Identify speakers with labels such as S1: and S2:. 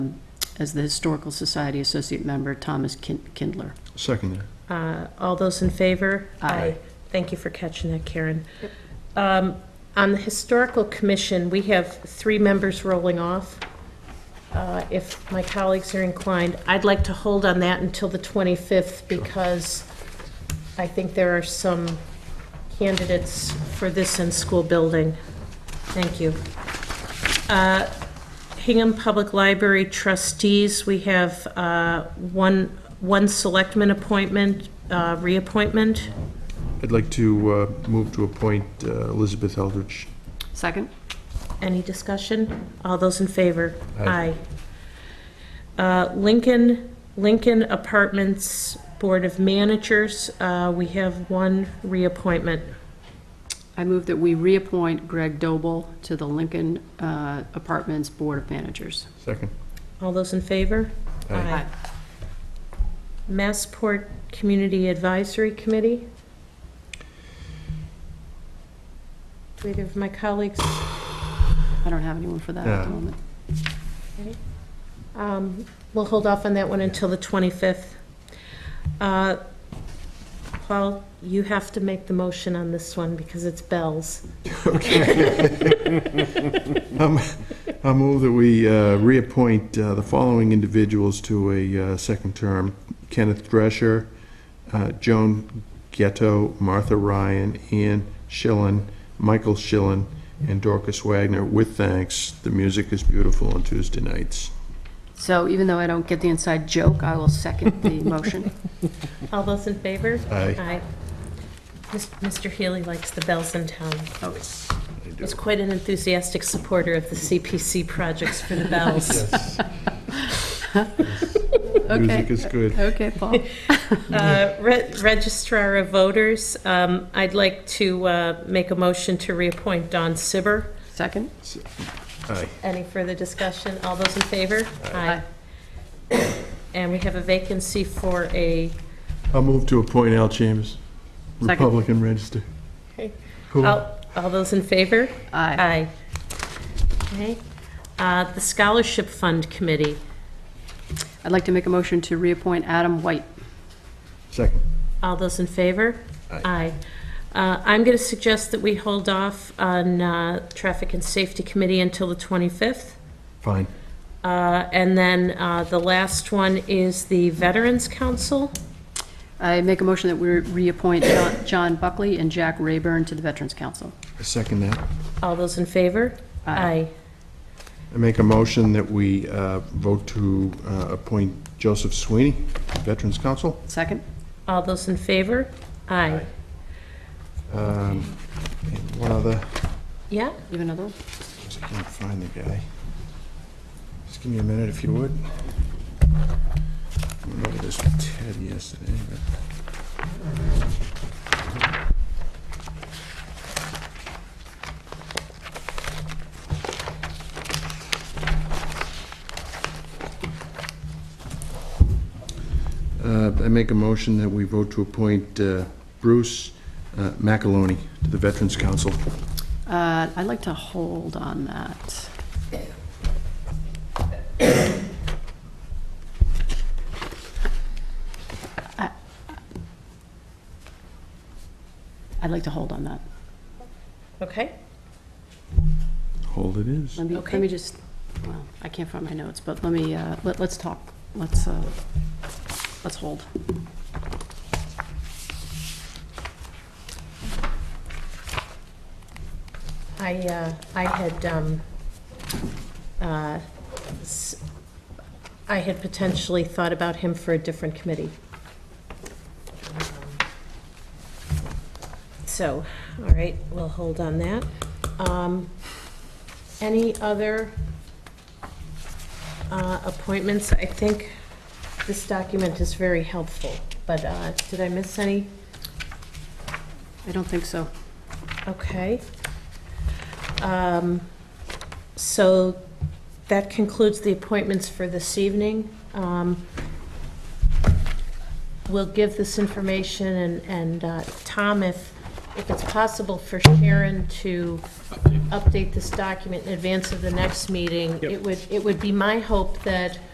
S1: as the Historical Society Associate Member, Thomas Kin- Kindler.
S2: Second that.
S3: Uh, All those in favor?
S1: Aye.
S3: Thank you for catching that, Karen. Um, On the Historical Commission, we have three members rolling off. Uh, If my colleagues are inclined, I'd like to hold on that until the 25th because I think there are some candidates for this in school building. Thank you. Uh, Hingham Public Library trustees, we have uh, one, one selectman appointment, uh, reappointment.
S2: I'd like to uh, move to appoint uh, Elizabeth Eldridge.
S1: Second?
S3: Any discussion? All those in favor?
S2: Aye.
S3: Aye. Uh, Lincoln, Lincoln Apartments Board of Managers, uh, we have one reappointment.
S1: I move that we reappoint Greg Doble to the Lincoln uh, Apartments Board of Managers.
S2: Second.
S3: All those in favor?
S2: Aye.
S3: Massport Community Advisory Committee? Do either of my colleagues
S1: I don't have anyone for that at the
S2: Yeah.
S1: moment.
S3: Um, We'll hold off on that one until the 25th. Uh, Paul, you have to make the motion on this one because it's Bell's.
S2: I'll move that we uh, reappoint uh, the following individuals to a uh, second term. Kenneth Drescher, uh, Joan Ghetto, Martha Ryan, Ian Schillen, Michael Schillen, and Dorcas Wagner, with thanks. The music is beautiful on Tuesday nights.
S1: So even though I don't get the inside joke, I will second the motion.
S3: All those in favor?
S2: Aye.
S3: Mis- Mr. Healy likes the bells in town.
S1: Oh,
S3: He's quite an enthusiastic supporter of the CPC projects for the bells.
S2: Music is good.
S1: Okay, Paul.
S3: Uh, Re- Registrar of Voters, um, I'd like to uh, make a motion to reappoint Don Sibber.
S1: Second?
S2: Aye.
S3: Any further discussion? All those in favor?
S1: Aye.
S3: And we have a vacancy for a,
S2: I'll move to appoint Al Chambers,
S1: Second.
S2: Republican Register.
S3: Okay.
S2: Who-
S3: all oh, all those in favor?
S1: Aye.
S3: Okay. Uh, The Scholarship Fund Committee,
S1: I'd like to make a motion to reappoint Adam White.
S2: Second.
S3: all those in favor? Aye. Uh, I'm going to suggest that we hold off on uh, Traffic and Safety Committee until the 25th.
S2: Fine.
S3: Uh, And then uh, the last one is the Veterans Council.
S1: I make a motion that we reappoint John- John Buckley and Jack Rayburn to the Veterans Council.
S2: I second that.
S3: All those in favor?
S1: Aye.
S2: I make a motion that we uh, vote to uh, appoint Joseph Sweeney, Veterans Council.
S1: Second?
S3: All those in favor? Aye.
S2: Um, And one other,
S3: Yeah?
S1: You have another one?
S2: I can't find the guy. Just give me a minute if you would. I went over this with Ted yesterday, but Uh, I make a motion that we vote to appoint uh, Bruce uh, McAloney to the Veterans Council.
S1: Uh, I'd like to hold on that. I- I'd like to hold on that.
S3: Okay.
S2: Hold it is.
S1: Let me,
S3: Okay.
S1: let me just, well, I can't find my notes, but let me, uh, let- let's talk, let's, uh, let's hold.
S3: I, uh, I had, um, uh, s- I had potentially thought about him for a different committee. So, all right, we'll hold on that. Um, Any other uh, appointments? I think this document is very helpful, but uh, did I miss any?
S1: I don't think so.
S3: Okay. Um, So that concludes the appointments for this evening. Um, We'll give this information, and, and uh, Tom, if, if it's possible for Sharon to update this document in advance of the next meeting,
S4: Yep.
S3: it would, it would be my hope that